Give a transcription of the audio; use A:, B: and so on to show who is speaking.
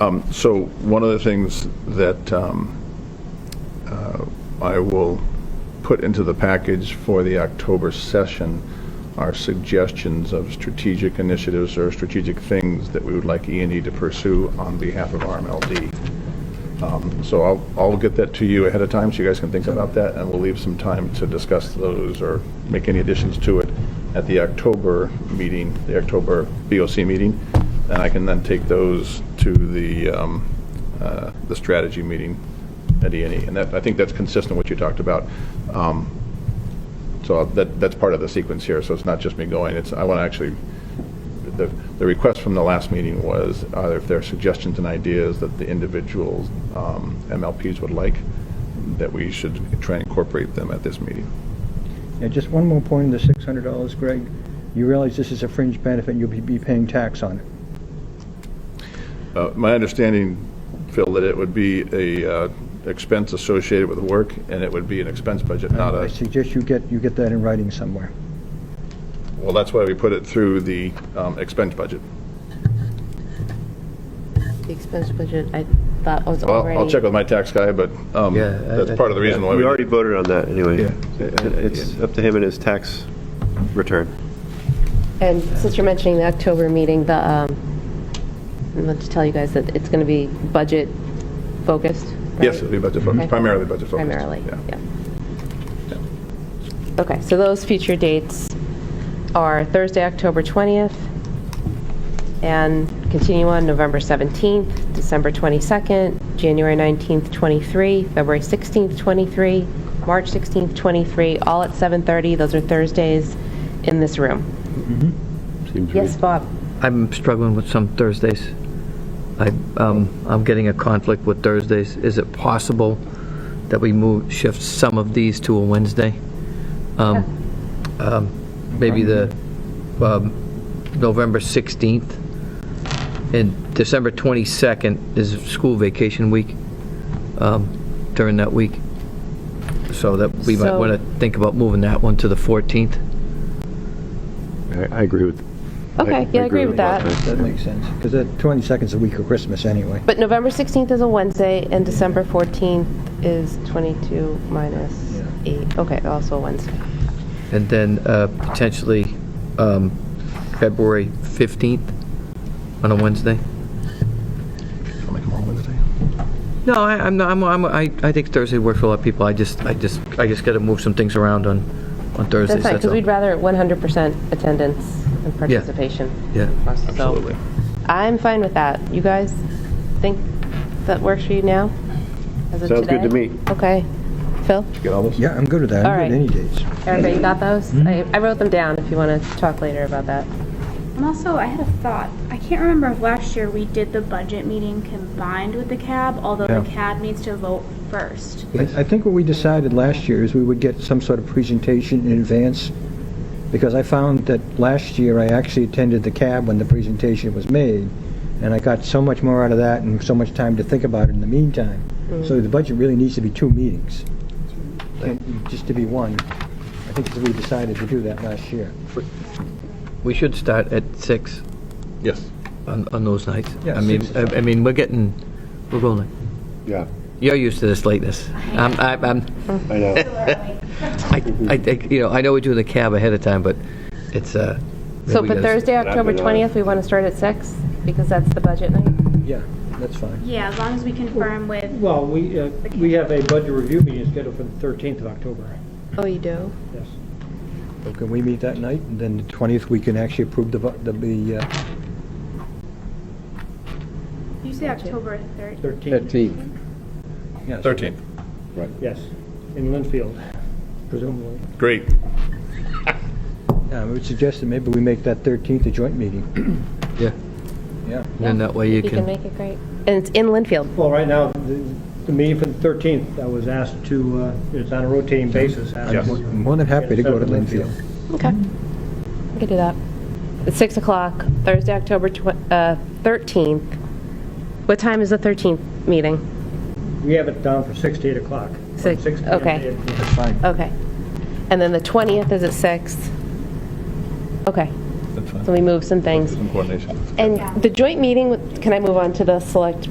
A: Um, So one of the things that um, uh, I will put into the package for the October session are suggestions of strategic initiatives or strategic things that we would like E and E to pursue on behalf of RMLD. Um, So I'll, I'll get that to you ahead of time, so you guys can think about that, and we'll leave some time to discuss those or make any additions to it at the October meeting, the October BOC meeting, and I can then take those to the, um, uh, the strategy meeting at E and E. And that, I think that's consistent with what you talked about. Um, So that, that's part of the sequence here, so it's not just me going, it's, I want to actually the, the request from the last meeting was either if there are suggestions and ideas that the individuals, um, MLPs would like, that we should try and incorporate them at this meeting.
B: Yeah, just one more point on the six hundred dollars, Greg. You realize this is a fringe benefit, and you'll be, be paying tax on it.
A: Uh, my understanding, Phil, that it would be a, uh, expense associated with work, and it would be an expense budget, not
B: I
A: a,
B: suggest you get, you get that in writing somewhere.
A: well, that's why we put it through the, um, expense budget.
C: The expense budget, I thought was
A: Well,
C: already.
A: I'll check with my tax guy, but, um,
D: Yeah. I-
A: that's part of the reason why
D: We
A: we.
D: already voted on that, anyway.
A: Yeah.
D: It's up to him and his tax return.
C: And since you're mentioning the October meeting, the, um, I want to tell you guys that it's going to be budget focused. right?
A: Yes, it'd be budget focused,
C: Okay.
A: primarily budget focused.
C: Primarily, yeah. Okay, so those future dates are Thursday, October 20th, and continue on November 17th, December 22nd, January 19th, 23, February 16th, 23, March 16th, 23, all at 7:30. Those are Thursdays in this room. Yes, Bob?
E: I'm struggling with some Thursdays. I, um, I'm getting a conflict with Thursdays. Is it possible that we move, shift some of these to a Wednesday? Um, um, Maybe the, um, November 16th? And December 22nd is school vacation week, um, during that week. So that, we might
C: So-
E: want to think about moving that one to the 14th.
D: I agree with.
C: Okay, yeah, I agree with that.
B: That makes sense, because that twenty seconds a week of Christmas anyway.
C: But November 16th is a Wednesday, and December 14th is 22 minus 8. Okay, also a Wednesday.
E: And then uh, potentially um, February 15th on a Wednesday?
A: I'll make them all Wednesday.
E: No, I, I'm, not- I'm, I'm- I I think Thursday works for a lot of people. I just, I just, I just got to move some things around on, on
C: That's fine,
E: Thursdays, that's
C: because
E: all.
C: we'd rather 100% attendance and participation.
E: Yeah.
C: So,
A: Absolutely.
C: I'm fine with that. You guys think that works for you now? As of
D: Sounds good to
C: today?
D: me.
C: Okay. Phil?
A: Get all those?
B: Yeah, I'm good with that.
C: All
B: I'm
C: right.
B: good any dates.
C: Everybody got those? I I wrote them down if you want to talk later about that.
F: And also, I had a thought. I can't remember if last year we did the budget meeting combined with the CAB, although the CAB needs to vote first.
B: I I think what we decided last year is we would get some sort of presentation in advance, because I found that last year I actually attended the cab when the presentation was made, and I got so much more out of that and so much time to think about it in the meantime. So the budget really needs to be two meetings, and just to be one. I think we decided to do that last year.
E: We should start at six
A: Yes.
E: on, on those nights.
B: Yeah,
E: I mean,
B: six.
E: I I mean, we're getting, we're going, like-
D: Yeah,
E: you're used to this lateness. I'm, I'm, I'm-
D: I know.
E: I, I, think, you know, I know we do the cab ahead of time, but it's, uh.
C: So,
E: we
C: but
E: gotta-
C: Thursday,
D: I've
C: October
D: been on.
C: 20th, we want to start at 6 because that's the budget night?
B: Yeah, that's fine.
F: Yeah, as long as we confirm with,
G: Well, we, uh, we have a budget review meeting scheduled for the 13th of October,
C: Oh, you do?
G: yes.
B: So Can we meet that night, and then the 20th, we can actually approve the, bu- the- the, uh,
F: you say October 3rd.
G: 13th,
B: yes.
A: 13th.
G: yes, in Linfield, presumably.
A: Great.
B: Yeah, I would suggest that maybe we make that 13th a joint meeting.
E: Yeah,
B: Yeah.
E: and then that way you
C: You can
E: can,
C: make it great. And it's in Linfield.
G: Well, right now, the the meeting for the 13th, I was asked to, uh, it's on a rotating basis. asked
A: Yes.
G: to-
B: I'm more than happy to go to Linfield.
C: Okay. We could do that. It's 6 o'clock, Thursday, October tw- uh, 13th. What time is the 13th meeting?
G: We have it down for 6 to 8 o'clock. from
C: Six-
G: 6 p.m. to
C: okay.
G: 8 p.m.
B: That's fine.
C: Okay. And then the 20th is at 6? Okay.
A: That's fine.
C: So we move some things.
A: Some coordination.
C: And the joint meeting, with- can I move on to the select